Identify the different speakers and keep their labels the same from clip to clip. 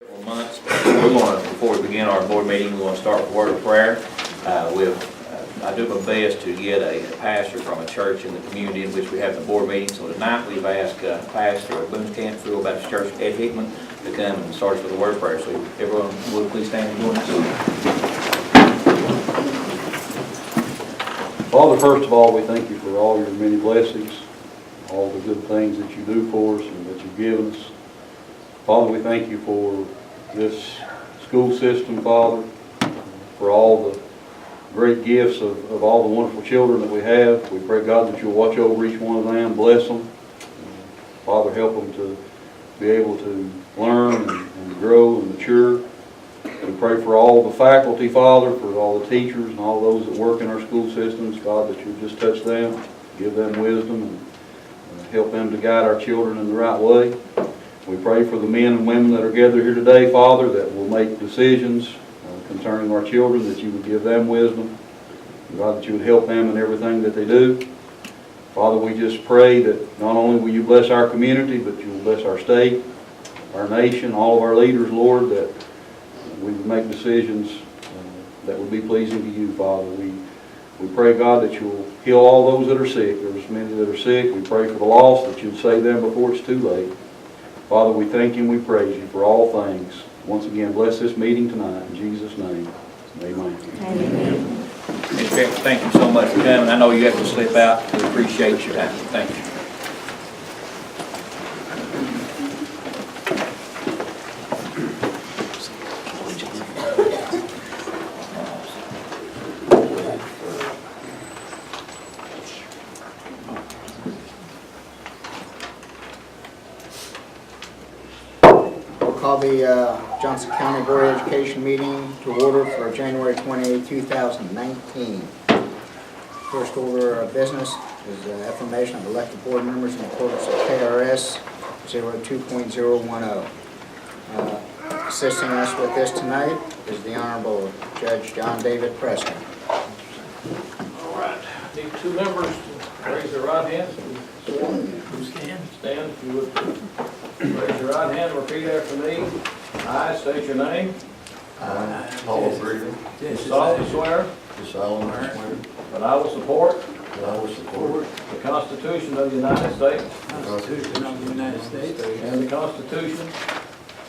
Speaker 1: Several months. We're going to, before we begin our board meeting, we're going to start with a word of prayer. Uh, We'll, uh, I do my best to get a pastor from a church in the community in which we have the board meeting. So tonight, we've asked uh, Pastor of Boone Canfield Baptist Church, Ed Hickman, to come and start us with a word of prayer. So everyone, would please stand and join us?
Speaker 2: Father, first of all, we thank you for all your many blessings, all the good things that you do for us and that you've given us. Father, we thank you for this school system, Father, for all the great gifts of, of all the wonderful children that we have. We pray, God, that you'll watch over each one of them, bless them. Father, help them to be able to learn and and grow and mature. We pray for all the faculty, Father, for all the teachers and all those that work in our school systems, God, that you just touch them, give them wisdom, and uh, help them to guide our children in the right way. We pray for the men and women that are gathered here today, Father, that will make decisions uh, concerning our children, that you would give them wisdom. God, that you would help them in everything that they do. Father, we just pray that not only will you bless our community, but you will bless our state, our nation, all of our leaders, Lord, that we would make decisions uh, that would be pleasing to you, Father. We, we pray, God, that you'll heal all those that are sick. There's many that are sick. We pray for the lost, that you'll save them before it's too late. Father, we thank you and we praise you for all things. Once again, bless this meeting tonight, in Jesus' name, amen.
Speaker 1: Miss Beck, Thank you so much for coming. I know you have to slip out. We appreciate your time. Thank you.
Speaker 3: We'll call the uh, Johnson County Board of Education meeting to order for January 28, 2019. First order of business is uh, affirmation of elected board members in accordance with KRS 02.010. oh. Uh, Assisting us with this tonight is the Honorable Judge John David Preston.
Speaker 4: All right, need two members to raise their right hands. Stand. Stand, if you would. Raise your right hand, repeat after me. I state your name.
Speaker 5: I, Paul Brigham,
Speaker 4: Do solemnly swear
Speaker 5: do solemnly swear
Speaker 4: that I will support
Speaker 5: that I will support
Speaker 4: the Constitution of the United States
Speaker 5: the Constitution of the United States
Speaker 4: and the Constitution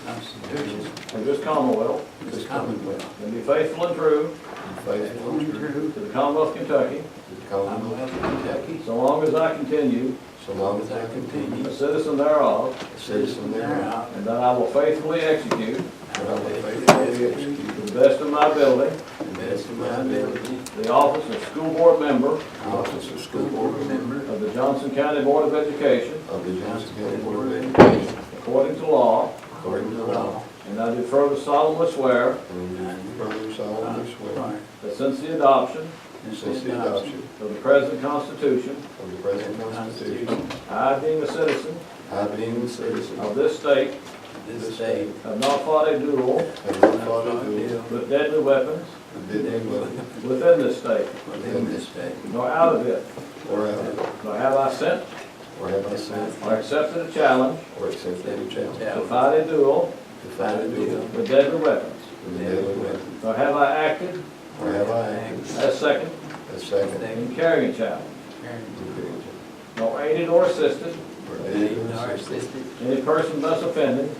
Speaker 5: Constitution
Speaker 4: of this Commonwealth,
Speaker 5: of this Commonwealth,
Speaker 4: and be faithful and true
Speaker 5: and faithful and true
Speaker 4: to the Commonwealth of Kentucky,
Speaker 5: to the Commonwealth of Kentucky,
Speaker 4: so long as I continue
Speaker 5: so long as I continue
Speaker 4: a citizen thereof,
Speaker 5: a citizen thereof,
Speaker 4: and that I will faithfully execute
Speaker 5: and I will faithfully execute
Speaker 4: to the best of my ability
Speaker 5: to the best of my ability
Speaker 4: the office of school board member
Speaker 5: the office of school board member
Speaker 4: of the Johnson County Board of Education
Speaker 5: of the Johnson County Board of Education,
Speaker 4: according to law,
Speaker 5: according to law,
Speaker 4: and I do further solemnly swear
Speaker 5: and I further solemnly swear
Speaker 4: that since the adoption
Speaker 5: that since the adoption
Speaker 4: of the present Constitution,
Speaker 5: of the present Constitution,
Speaker 4: I, being a citizen
Speaker 5: I being a citizen
Speaker 4: of this state,
Speaker 5: of this state,
Speaker 4: have not fought a duel
Speaker 5: Have not fought a duel,
Speaker 4: with deadly weapons
Speaker 5: been able
Speaker 4: within this state,
Speaker 5: within this state,
Speaker 4: nor out of it,
Speaker 5: or out of it,
Speaker 4: nor have I sent
Speaker 5: or have I sent,
Speaker 4: or accepted a challenge
Speaker 5: or accepted a
Speaker 4: to
Speaker 5: challenge
Speaker 4: fight a duel
Speaker 5: to fight a duel
Speaker 4: with deadly weapons,
Speaker 5: with a deadly weapon,
Speaker 4: nor have I acted
Speaker 5: or have I acted
Speaker 4: as second
Speaker 5: as second
Speaker 4: in carrying a challenge,
Speaker 5: individual,
Speaker 4: nor aided or assisted
Speaker 5: or aided in assistance
Speaker 4: any person thus offended,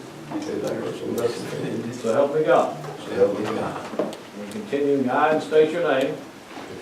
Speaker 5: to that person thus offended,
Speaker 4: so help me God.
Speaker 5: so help me God.
Speaker 4: And continuing, I and state your name,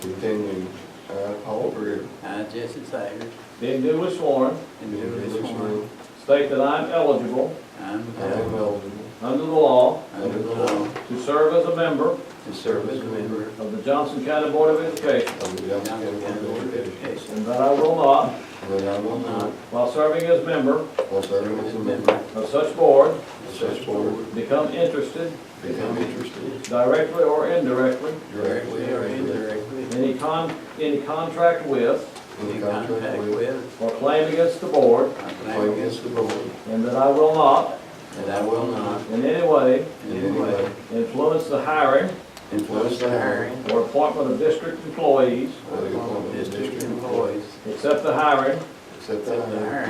Speaker 5: To continue, Uh, I, Paul Brigham,
Speaker 6: I, Jesse Sayers,
Speaker 4: being duly sworn,
Speaker 6: in
Speaker 5: do
Speaker 6: duly sworn,
Speaker 5: sworn,
Speaker 4: state that I am eligible,
Speaker 6: I am
Speaker 5: I am
Speaker 6: bound
Speaker 5: eligible,
Speaker 4: under the law,
Speaker 6: under the law
Speaker 4: to serve as a member
Speaker 5: to serve as a member
Speaker 4: of the Johnson County Board of Education,
Speaker 5: of the Johnson County Board of Education,
Speaker 4: and that I will not,
Speaker 5: and that I will not,
Speaker 4: while serving as member
Speaker 5: while serving as a member
Speaker 4: of such board,
Speaker 5: of such board,
Speaker 4: become interested,
Speaker 5: become interested
Speaker 4: directly or indirectly,
Speaker 5: directly or indirectly,
Speaker 4: in any con, any contract with
Speaker 5: in
Speaker 6: in
Speaker 5: contract
Speaker 6: contact
Speaker 5: with,
Speaker 6: with,
Speaker 4: or claim against the board,
Speaker 6: I
Speaker 5: or
Speaker 6: claim
Speaker 5: against the board,
Speaker 4: and that I will not,
Speaker 5: and I will not,
Speaker 4: in any way,
Speaker 5: in any way,
Speaker 4: influence the hiring
Speaker 5: influence the hiring
Speaker 4: or appointment of district employees,
Speaker 5: or the appointment of district employees,
Speaker 4: except the hiring
Speaker 5: except
Speaker 6: the
Speaker 5: that I
Speaker 6: hiring